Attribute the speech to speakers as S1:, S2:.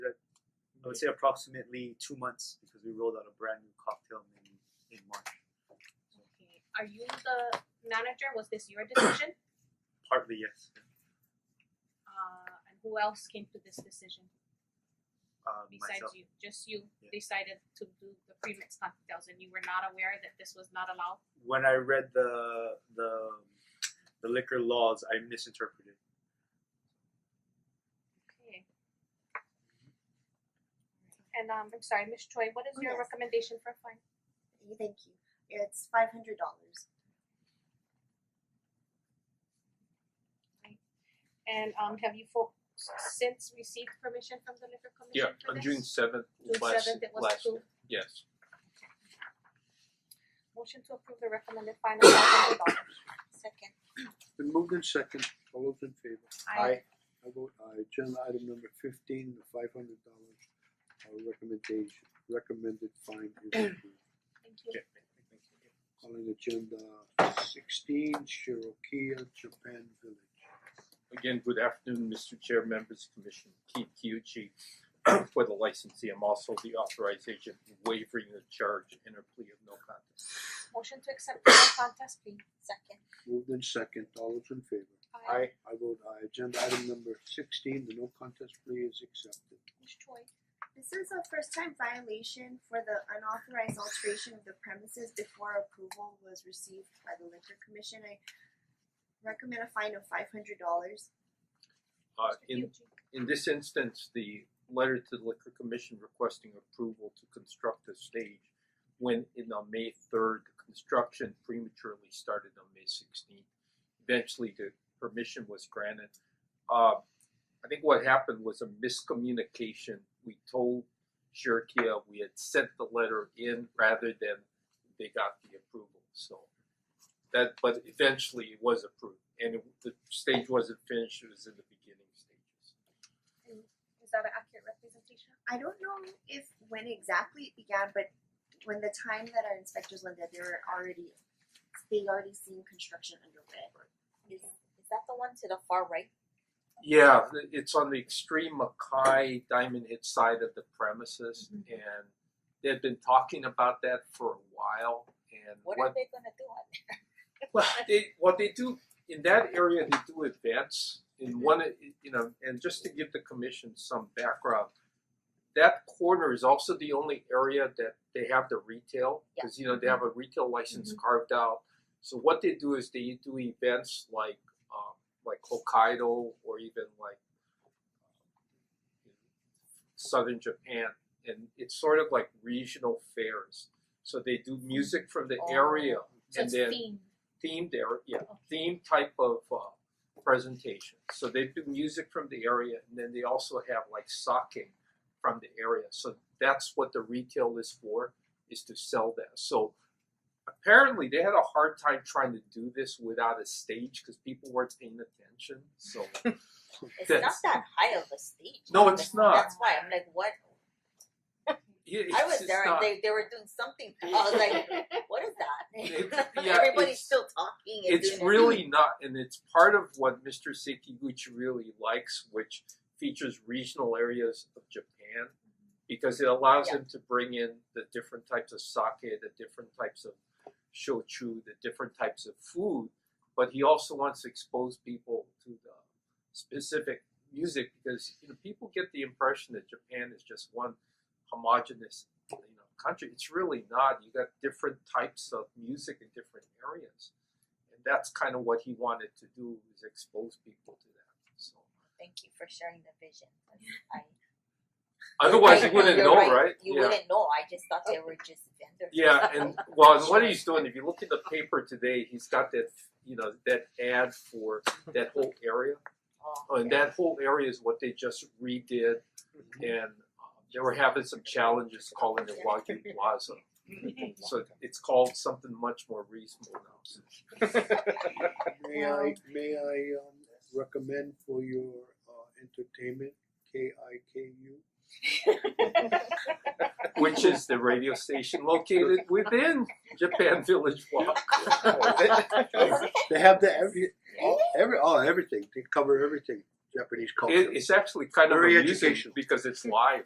S1: would say approximately two months because we rolled out a brand new cocktail menu in March.
S2: Okay. Are you the manager? Was this your decision?
S1: Partly yes.
S2: uh, and who else came to this decision
S1: Uh,
S2: besides
S1: myself.
S2: you? Just you
S1: Yeah.
S2: decided to do the premix cocktails, and you were not aware that this was not allowed.
S1: When I read the the the liquor laws, I misinterpreted.
S2: Okay. And um, I'm sorry, Miss Choi. What is
S3: Oh,
S2: your
S3: yes.
S2: recommendation for fine?
S3: Thank you. It's five hundred dollars.
S2: And um, have you folks since received permission from the liquor
S4: Yeah,
S2: commission? for
S4: on
S2: this?
S4: June seventh
S2: June
S4: last
S2: seventh, it was
S4: last
S2: approved.
S4: yes.
S2: Motion to approve the recommended fine of five hundred dollars.
S3: Second.
S5: Been moved in second, all those in favor?
S2: Aye.
S5: I vote aye, agenda item number fifteen, the five hundred dollars uh recommendation, recommended fine is approved.
S2: Thank you.
S5: Calling agenda sixteen, Shirokiya, Japan Village.
S4: Again, good afternoon, Mister Chair, members, Commission, Keith Kyuchi. For the licensee, I'm also the authorization waiving the charge and a plea of no contest.
S2: Motion to accept the no contest plea.
S3: Second.
S5: Moved in second, all those in favor?
S2: Aye.
S5: I vote aye, agenda item number sixteen, the no contest plea is accepted.
S2: Ms. Choi.
S3: This is a first time violation for the unauthorized alteration of the premises before approval was received by the liquor commission. I recommend a fine of five hundred dollars.
S2: Mr.
S4: Uh in
S2: Kyuchi.
S4: in this instance, the letter to the liquor commission requesting approval to construct a stage went in on May third, construction prematurely started on May sixteenth. Eventually, the permission was granted. Uh, I think what happened was a miscommunication. We told Shirkia we had sent the letter in rather than they got the approval, so. That, but eventually it was approved, and it- the stage wasn't finished, it was in the beginning stages.
S2: Is that an accurate representation?
S3: I don't know if when exactly it began, but when the time that our inspectors went there, they were already they already seen construction underway.
S6: Is is that the one to the far right?
S4: Yeah, th- it's on the extreme Mackay Diamond Hit side of the premises, and they had been talking about that for a while. And
S6: What
S4: what,
S6: are they gonna do on there?
S4: well, they what they do in that area, they do events. In
S2: Mm-hmm.
S4: one, you know, and just to give the commission some background, that corner is also the only area that they have the retail because you know they
S2: Mm-hmm.
S4: have a retail license carved out. So what they do is they do events like um, like Hokkaido or even like um, southern Japan, and it's sort of like regional fairs. So they do music from the
S6: Oh.
S4: area
S2: So
S4: and
S2: it's
S4: then
S2: themed.
S4: themed area, yeah,
S2: Okay.
S4: themed type of uh, presentation. So they do music from the area, and then they also have like sake from the area. So that's what the retail is for, is to sell that. So apparently they had a hard time trying to do this without a stage because people weren't paying attention. So
S6: It's not
S4: That's-
S6: that high of a stage.
S4: No, it's
S6: That's-
S4: not.
S6: That's why I'm like, what?
S4: yeah,
S6: I
S4: it's-
S6: was
S4: it's
S6: there
S4: not-
S6: and they they were doing something. I was like, what is that?
S4: It's- yeah,
S6: Everybody's
S4: it's-
S6: still talking. and doing
S4: it's
S6: their
S4: really not, and it's part of what Mr. Sekiguchi really likes, which features regional areas of Japan, because it allows
S6: Yeah.
S4: him to bring in the different types of sake, the different types of shochu, the different types of food, but he also wants to expose people to the specific music because you know people get the impression that Japan is just one homogenous you know country. It's really not. You got different types of music in different areas and that's kind of what he wanted to do is expose people to that. So
S6: Thank you for sharing the vision. I-
S4: otherwise, you
S6: I-
S4: wouldn't
S6: you're
S4: know,
S6: right.
S4: right?
S6: You
S4: yeah,
S6: wouldn't know. I just thought they were just vendors.
S4: yeah, and well, and what he's doing. If you look at the paper today, he's got that you know that ad for that whole area,
S6: Oh,
S4: oh, and
S6: okay.
S4: that whole area is what they just redid, and um, they were having some challenges calling it Wagyu Plaza. So it's called something much more reasonable now. So
S5: May I, may I um recommend for your uh entertainment, K I K U?
S4: which is the radio station located within Japan Village Walk.
S5: They have the every, all, every, all, everything, they cover everything, Japanese culture.
S4: It, it's actually kind of
S5: Very
S4: amusing
S5: educational.
S4: because it's live.